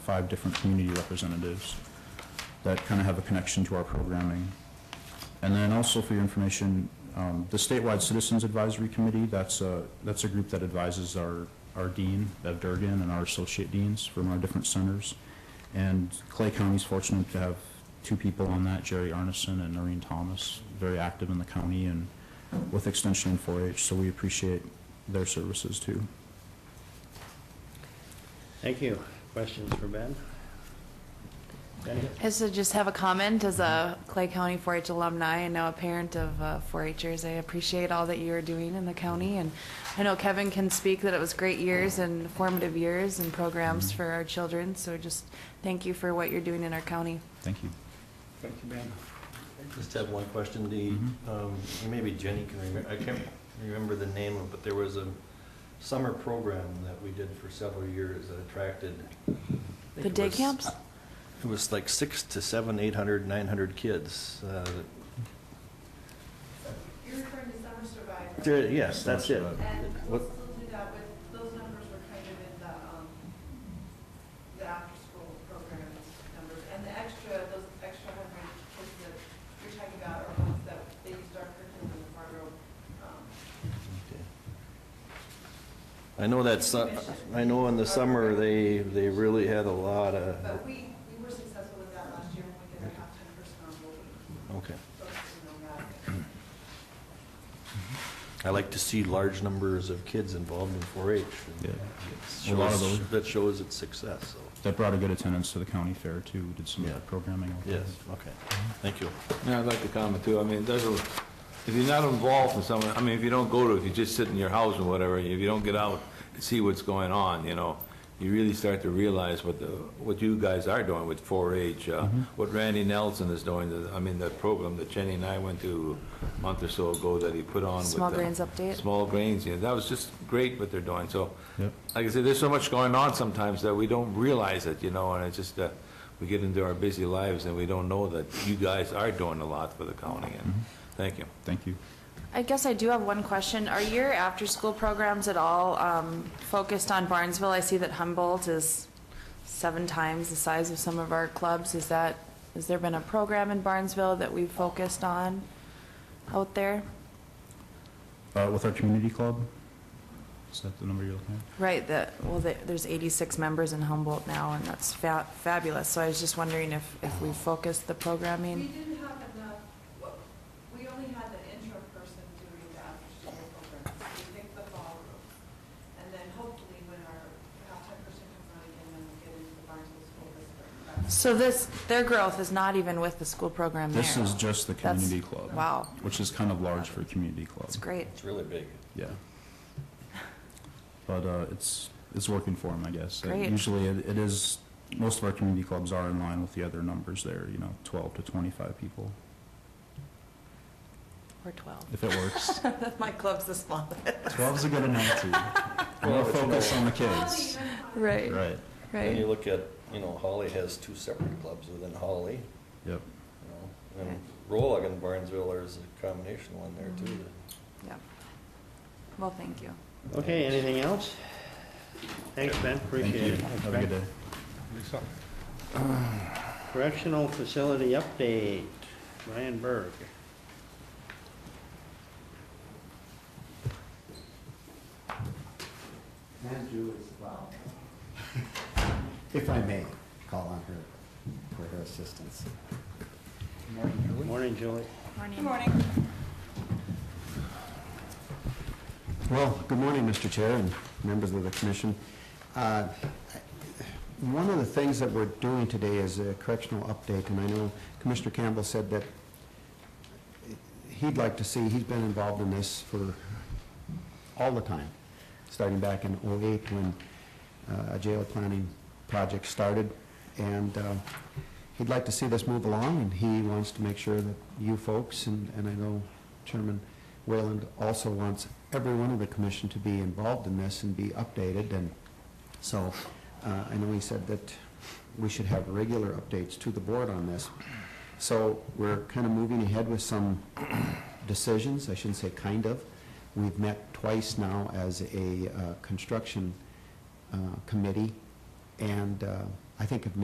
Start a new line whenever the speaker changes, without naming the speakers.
five different community representatives that kind of have a connection to our programming. And then also for your information, um, the statewide Citizens Advisory Committee, that's a, that's a group that advises our, our dean, Bev Durgan, and our associate deans from our different centers. And Clay County's fortunate to have two people on that, Jerry Arneson and Noreen Thomas, very active in the county and with Extension and 4-H, so we appreciate their services too.
Thank you. Questions for Ben? Benny?
I just- I just have a comment as a Clay County 4-H alumni and now a parent of uh, 4-Hers. I appreciate all that you are doing in the county, and I know Kevin can speak that it was great years and formative years and programs for our children, so just thank you for what you're doing in our county.
Thank you.
Thank you, Ben.
Just have one question, the, um, maybe Jenny can remember, I can't remember the name of, it, but there was a summer program that we did for several years that attracted. I think
The
it
day
was-
camps?
It was like six to seven, eight hundred, nine hundred kids. uh, that-
You're referring to summer survivor.
there- Yes, that's it.
And we'll
What-
still do that with, those numbers were kind of in the, um, the after-school programs numbers. And the extra, those extra hundred kids that you're talking about are ones that they used our curriculum in the Fargo, um,
okay. I know that's, I know in the summer, they, they really had a lot
but
of,
we, we were successful with that last year when we did our halftime person on board.
okay.
Focusing on that.
I like to see large numbers of kids involved in 4-H. and
Yeah. A
it
lot of
shows-
those.
That shows its success, so,
That brought a good attendance to the county fair too, we did some of
Yeah.
that programming. out there.
yes, okay, thank you.
Yeah, I'd like to comment too. I mean, it doesn't, if you're not involved in someone, I mean, if you don't go to, if you just sit in your house or whatever, if you don't get out and see what's going on, you know, you really start to realize what the, what you guys are doing with 4-H, uh, what Randy Nelson is doing, I mean, that program that Jenny and I went to a month or so ago that he put on with.
Small
the-
Grains Update.
Small grains, yeah, that was just great what they're doing, so.
Yep.
Like I said, there's so much going on sometimes that we don't realize it, you know, and it's just, uh, we get into our busy lives and we don't know that you guys are doing a lot for the county, and thank you.
Thank you.
I guess I do have one question. Are your after-school programs at all um, focused on Barnesville? I see that Humboldt is seven times the size of some of our clubs. Is that, has there been a program in Barnesville that we've focused on out there?
Uh, With our community club, is that the number you're looking at?
Right, that, well, the- there's 86 members in Humboldt now, and that's fa- fabulous. So I was just wondering if, if we focused the
We
programming?
didn't have enough, well, we only had the intro person doing the after-school program. We picked the ballroom. And then hopefully when our halftime person comes on again, then we'll get into the Barnesville School this spring. But
So this, their growth is not even with the school program there?
This is just the
That's-
community club.
wow.
Which is kind of large for a community club.
That's great.
It's really big.
Yeah. But uh, it's, it's working for them, I guess. Uh,
Great.
Usually it it is, most of our community clubs are in line with the other numbers there, you know, 12 to 25 people,
Or 12.
if it works.
My club's the smallest.
12's a good enough, too. More focus on the kids.
Right,
Right,
When you look at, you know, Holly has two separate clubs within Holly,
yep.
you know, and Rolla and Barnesville, there's a combination one there too.
Yeah. Well, thank you.
Okay, anything else? Thanks, Ben,
Thank
appreciate
you.
it.
Have a good day.
Correctional facility update, Ryan Berg.
Andrew as well. If I may, call on her for her assistance.
Morning, Julie.
Morning.
Good morning.
Well, good morning, Mr. Chair and members of the commission. Uh, One of the things that we're doing today is a correctional update, and I know Commissioner Campbell said that he'd like to see, he's been involved in this for all the time, starting back in '08 when uh, a jail planning project started. And uh, he'd like to see this move along, and he wants to make sure that you folks, and and I know Chairman Wayland also wants every one of the commission to be involved in this and be updated. And so uh, I know he said that we should have regular updates to the board on this. So we're kind of moving ahead with some decisions, I shouldn't say kind of. We've met twice now as a uh, construction uh, committee, and uh, I think if